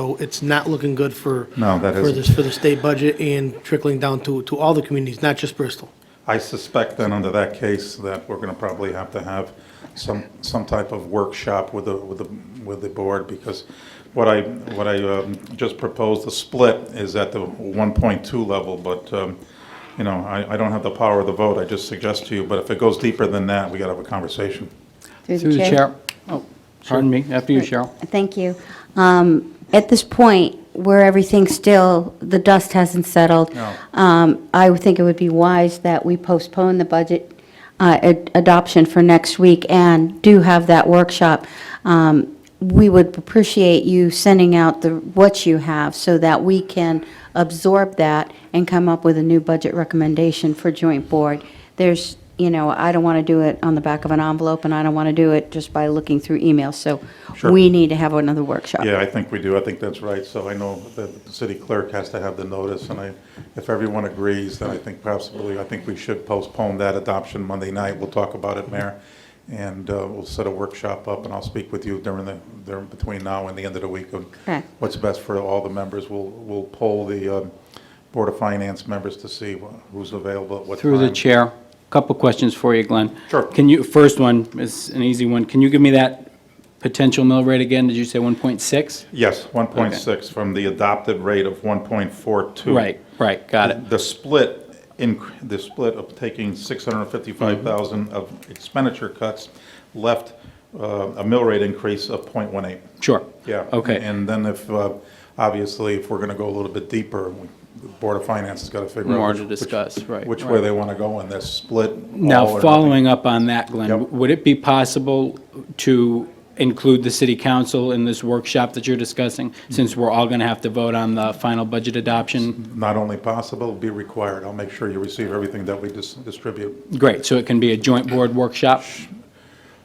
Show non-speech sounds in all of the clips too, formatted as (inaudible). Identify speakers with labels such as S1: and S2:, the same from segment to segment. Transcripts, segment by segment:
S1: So it's not looking good for.
S2: No, that
S1: For
S2: isn't.
S1: this, for the state budget and trickling down to, to all the communities, not just Bristol.
S2: I suspect then under that case that we're going to probably have to have some, some type of workshop with the, with the, with the board because what I, what I um, just proposed, the split is at the 1.2 level, but, um, you know, I, I don't have the power of the vote, I just suggest to you, but if it goes deeper than that, we got to have a conversation.
S3: Through the chair. Oh, pardon me, after you, Cheryl.
S4: Thank you. Um, At this point, where everything's still, the dust hasn't settled,
S2: No.
S4: um, I would think it would be wise that we postpone the budget uh, ad- adoption for next week and do have that workshop. Um, We would appreciate you sending out the, what you have, so that we can absorb that and come up with a new budget recommendation for joint board. There's, you know, I don't want to do it on the back of an envelope, and I don't want to do it just by looking through emails, so
S2: Sure.
S4: we need to have another workshop.
S2: Yeah, I think we do, I think that's right, so I know that the city clerk has to have the notice, and I, if everyone agrees, then I think possibly, I think we should postpone that adoption Monday night, we'll talk about it, Mayor, and uh, we'll set a workshop up, and I'll speak with you during the, during, between now and the end of the week of
S4: Okay.
S2: what's best for all the members, we'll, we'll poll the um, Board of Finance members to see wh- who's available at what time.
S3: Through the chair, couple questions for you, Glenn.
S2: Sure.
S3: Can you, first one is an easy one. Can you give me that potential mill rate again? Did you say 1.6?
S2: Yes, 1.6 from the adopted rate of 1.42.
S3: Right, right, got it.
S2: The split, inc- the split of taking 655,000 of expenditure cuts left uh, a mill rate increase of .18.
S3: Sure.
S2: Yeah.
S3: Okay,
S2: And then if, uh, obviously, if we're going to go a little bit deeper, we- the Board of Finance has got to figure out.
S3: More to
S2: which-
S3: discuss, right,
S2: Which
S3: right.
S2: way they want to go in this split. all or
S3: now
S2: nothing.
S3: following up on that,
S2: Yep.
S3: Glenn, would it be possible to include the city council in this workshop that you're discussing? Since we're all going to have to vote on the final budget adoption?
S2: Not only possible, be required. I'll make sure you receive everything that we dis- distribute.
S3: Great, so it can be a joint board workshop?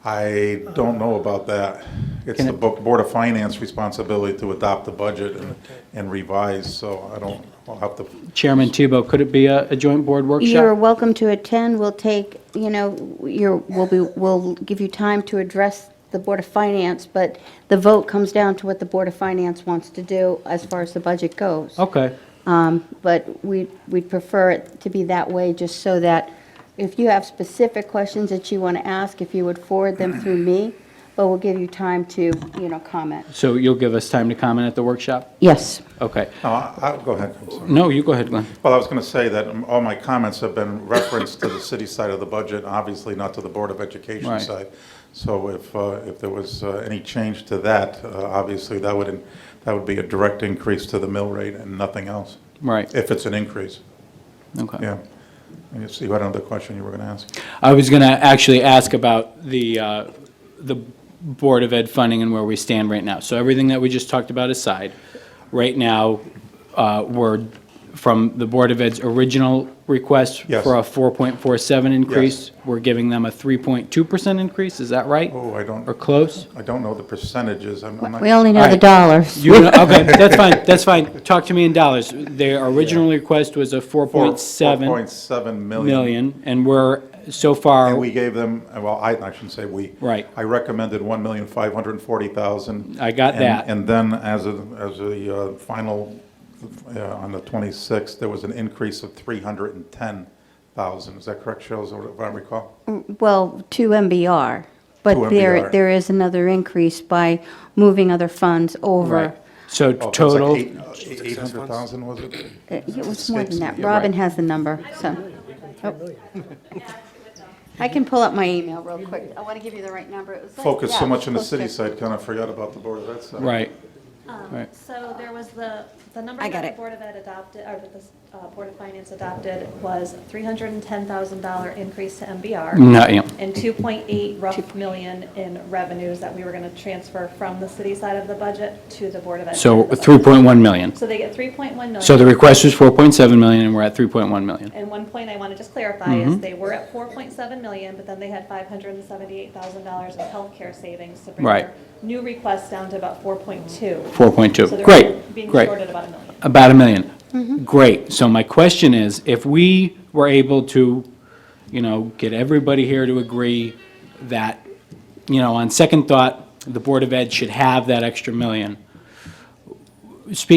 S2: I don't know about that. It's
S3: Can
S2: the
S3: it-
S2: Bo- Board of Finance responsibility to adopt the budget and- and revise, so I don't, I'll have to,
S3: Chairman Tebow, could it be a, a joint board workshop?
S4: You're welcome to attend, we'll take, you know, you're, we'll be, we'll give you time to address the Board of Finance, but the vote comes down to what the Board of Finance wants to do as far as the budget goes.
S3: Okay,
S4: But we, we'd prefer it to be that way, just so that if you have specific questions that you want to ask, if you would forward them through me, but we'll give you time to, you know, comment.
S3: so you'll give us time to comment at the workshop?
S4: Yes.
S3: Okay.
S2: no, I- I'll, go ahead. I'm sorry.
S3: No, you go ahead, Glenn.
S2: Well, I was going to say that um, all my comments have been referenced to the city side of the budget, obviously not to the Board of Education
S3: Right.
S2: side. So if, uh, if there was uh, any change to that, uh, obviously that would, that would be a direct increase to the mill rate and nothing else,
S3: Right,
S2: if it's an increase,
S3: okay.
S2: yeah. And you see, what another question you were going to ask?
S3: I was going to actually ask about the, uh, the Board of Ed funding and where we stand right now. So everything that we just talked about aside, right now, uh, we're, from the Board of Ed's original request
S2: Yes.
S3: for a 4.47 increase, we're giving them a 3.2% increase, is that right?
S2: Oh, I don't.
S3: Or close?
S2: I don't know the percentages, I'm I'm not.
S4: We only know
S3: All
S4: the
S3: right.
S4: dollars.
S3: You,
S2: (laughs)
S3: know- okay, that's fine, that's fine. Talk to me in dollars. Their original request was a
S2: Four-
S3: 4.7
S2: 4.7 million.
S3: million, and we're, so far,
S2: And we gave them, well, I, I shouldn't say we.
S3: Right.
S2: I recommended 1,540,000.
S3: I got
S2: And-
S3: that.
S2: And then as a, as a uh, final, uh, on the 26th, there was an increase of 310,000. Is that correct, Cheryl, Is- if I recall? Oh,
S4: Well, to MBR,
S2: To
S4: but there,
S2: MBR.
S4: there is another increase by moving other funds over.
S3: Right. So
S2: Oh, that's like
S3: total.
S2: eight- uh, 800,000, was it?
S4: Uh, It was more than that.
S3: You're right.
S4: Robin has the number, so. Oh. I can pull up my email real quick. I want to give you the right number. It was like-
S2: Focused so
S4: yeah,
S2: much on the
S4: close
S2: city
S4: to-
S2: side, kind of forgot about the Board uh, of Ed side.
S3: Right, right.
S5: So there was the, the
S4: I
S5: number
S4: got
S5: that the
S4: it.
S5: Board of Ed adopted, or that the uh, Board of Finance adopted was $310,000 increase to MBR
S3: No, yeah,
S5: and 2.8 rough million in revenues that we were going to transfer from the city side of the budget to the Board of Ed.
S3: so
S5: side of the budget.
S3: 3.1 million.
S5: So they get 3.1 million.
S3: So the request was 4.7 million, and we're at 3.1 million.
S5: And one point I want to just clarify
S3: Mm-hmm.
S5: is they were at 4.7 million, but then they had $578,000 of healthcare savings to bring
S3: Right.
S5: their new request down to about 4.2. So
S3: 4.2,
S5: they're
S3: great,
S5: Being
S3: great.
S5: shorted Mm-hmm. about
S3: About
S5: a million.
S3: a million. Great, so my question is, if we were able to, you know, get everybody here to agree that, you know, on second thought, the Board of Ed should have that extra million, speaking